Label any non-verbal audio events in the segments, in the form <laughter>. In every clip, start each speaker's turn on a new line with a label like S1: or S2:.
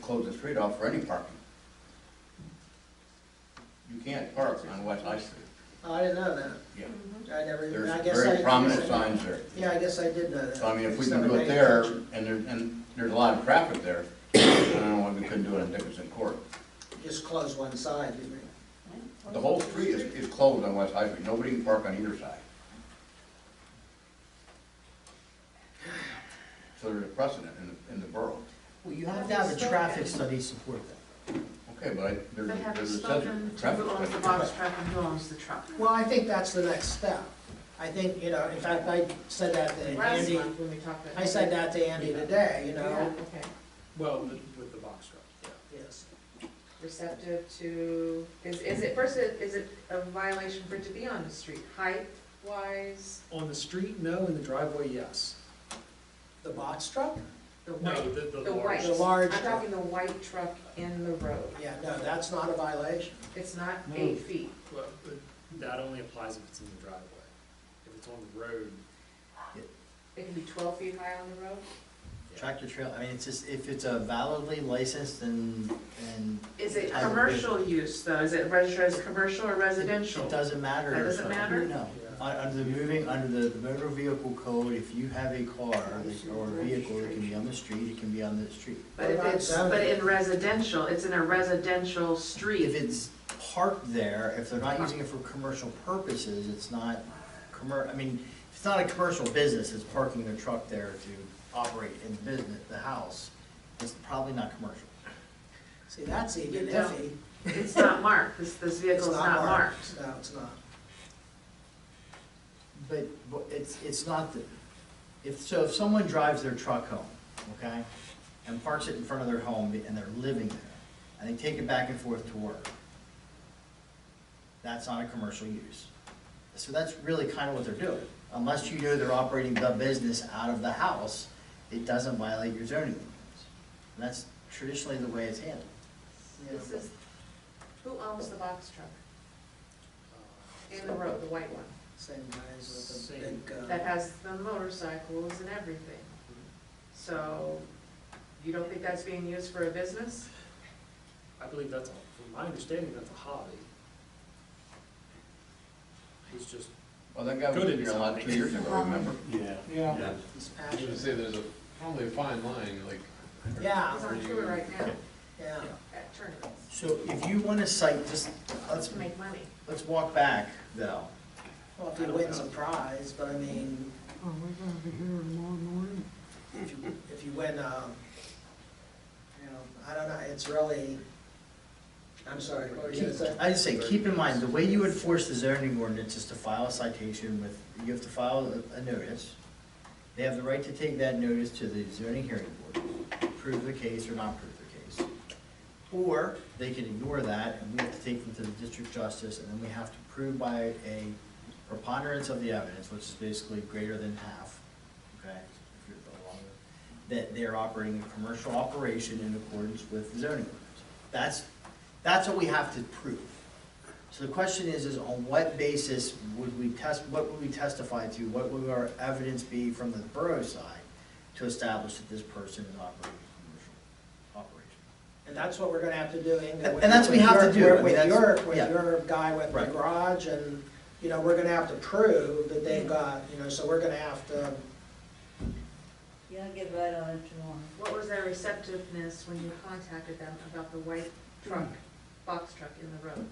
S1: close the street off for any parking. You can't park on West High Street.
S2: Oh, I didn't know that.
S1: Yeah.
S2: I never, even- Mm-hmm. I
S1: There's
S2: guess I.
S1: very prominent
S2: guess I-
S1: signs there.
S2: Yeah, I guess I did know that.
S1: So I mean, if we
S2: Just
S1: can do
S2: never
S1: it
S2: paid
S1: there,
S2: attention.
S1: and there, and there's a lot of traffic there, <coughs> I don't know why we couldn't do it on Dickinson Court.
S2: Just close one side, you mean?
S1: The whole street is, is closed on West High Street, nobody can park on either side. So there's a precedent in, the- in the borough.
S3: Well, you have to have a traffic study to support that.
S1: Okay, but I, there's,
S4: They
S1: a-
S4: have
S1: there's a
S4: spoken
S1: sense,
S4: to
S1: traffic
S4: who owns the
S1: study.
S4: box truck and who owns the truck.
S2: Well, I think that's the next step. I think, you know, in fact, I said that to
S4: Last
S2: Andy,
S4: month when we talked about.
S2: I said that to Andy today, you
S4: Yeah,
S2: know?
S4: okay.
S5: Well, with- with the box truck, yeah.
S2: Yes.
S4: Receptive to, is, is it, first, it- is it a violation for it to be on the street, height wise?
S5: On the street, no, in the driveway, yes.
S2: The box truck?
S4: The
S5: No,
S4: white,
S5: the, the
S4: the white.
S5: large,
S2: The large
S4: I'm
S2: truck.
S4: talking the white truck in the road.
S2: Yeah, no, that's not a violation.
S4: It's not
S5: No.
S4: eight feet.
S5: well, that only applies if it's in the driveway. If it's on the road,
S4: It can be twelve feet high on the road.
S3: Tractor trail, I mean, it's just, if it's a validly licensed and, and.
S4: Is it
S3: has a-
S4: commercial use though? Is it registered as commercial or residential?
S3: It doesn't matter.
S4: That doesn't matter?
S3: No, Un- under the moving, under the motor vehicle code, if you have a car that- or a vehicle, it can be on the street, it can be on the street.
S4: But if it's, but in residential, it's in a residential
S3: If
S4: street.
S3: it's parked there, if they're not using it for commercial purposes, it's not commer, I mean, if it's not a commercial business, it's parking their truck there to operate in the business, the house, it's probably not commercial.
S2: See, that's even
S4: You don't.
S2: iffy.
S4: It's not marked. This, this
S2: It's
S4: vehicle's not marked.
S2: No, it's not.
S3: But, but it's, it's not the, if, so if someone drives their truck home, okay, and parks it in front of their home and they're living there, and they take it back and forth to work, that's not a commercial use. So that's really kind of what they're doing. Unless you know they're operating the business out of the house, it doesn't violate your zoning ordinance. And that's traditionally the way it's handled.
S2: Yeah.
S4: This is, who owns the box truck
S5: uh,
S4: in the road, the white one?
S2: Same guys with the
S5: Same.
S2: big,
S4: That
S2: uh,
S4: has the motorcycles and everything. So you don't think that's being used for a business?
S5: I believe that's, a- from my understanding, that's a hobby. He's just,
S1: Well, that guy was
S5: Good
S1: in here a lot
S5: design.
S1: two years ago, remember?
S6: Yeah.
S2: yeah, it's
S6: I was gonna
S2: passionate.
S6: say, there's a, probably a fine line, like.
S2: Yeah,
S4: It's on tour right now
S2: yeah.
S4: at tournaments
S3: So if you want to cite, just, let's,
S4: to make money.
S3: let's walk back though.
S2: Well, if he wins a prize, but I mean.
S3: Oh,
S2: Are we gonna be here tomorrow morning? If you, if you win, um, you know, I don't know, it's really, I'm sorry, what were you gonna say?
S3: I just say, keep in mind, the way you enforce the zoning ordinance is to file a citation with, you have to file a- a notice. They have the right to take that notice to the zoning hearing board, prove the case or not prove the case. Or they can ignore that and we have to take them to the district justice and then we have to prove by a preponderance of the evidence, which is basically greater than half, okay? if you're along with- That they're operating a commercial operation in accordance with zoning ordinance. That's, that's what we have to prove. So the question is, is on what basis would we test, what would we testify to, what would our evidence be from the borough side to establish that this person is operating a commercial operation?
S2: And that's what we're gonna have to do, Inga. with-
S3: And that's what we have to
S2: with
S3: do.
S2: your-
S3: I mean,
S2: With
S3: that's-
S2: your, with
S3: yeah.
S2: your guy with the
S3: Right.
S2: garage and, you know, we're gonna have to prove that they've got, you know, so we're gonna have to,
S7: Yeah, I'll get right on it tomorrow.
S4: What was their receptiveness when you contacted them about the white truck, box truck in the road?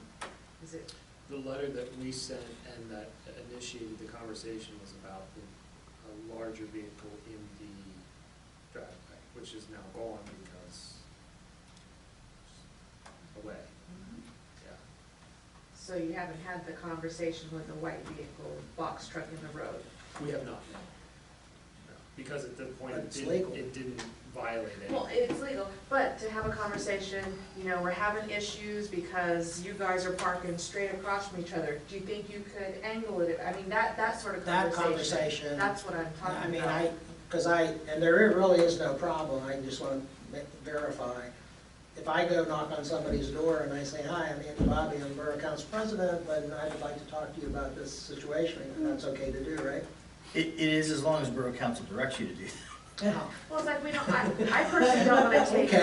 S4: Is it,
S5: the letter that we sent and that initiated the conversation was about the, a larger vehicle in the driveway, which is now gone because away, yeah.
S4: so you haven't had the conversation with the white vehicle, box truck in the road?
S5: We have not, no. No, Because at the point,
S2: But
S5: it
S2: it's
S5: didn't,
S2: legal.
S5: it didn't violate it.
S4: Well, it's legal, but to have a conversation, you know, we're having issues because you guys are parking straight across from each other. Do you think you could angle it? I mean, that, that sort of
S2: that
S4: conversation.
S2: conversation.
S4: That's what I'm
S2: I
S4: talking
S2: mean,
S4: about.
S2: I, because I, and there really is no problem, I just want to verify. If I go knock on somebody's door and I say, hi, I'm Andy Bobby, I'm Borough Council President, and I'd like to talk to you about this situation, that's okay to do, right?
S3: It, it is as long as borough council directs you to do that.
S2: Yeah. <laughs>
S4: Well, it's like, we don't, I, I personally don't wanna take
S2: Okay.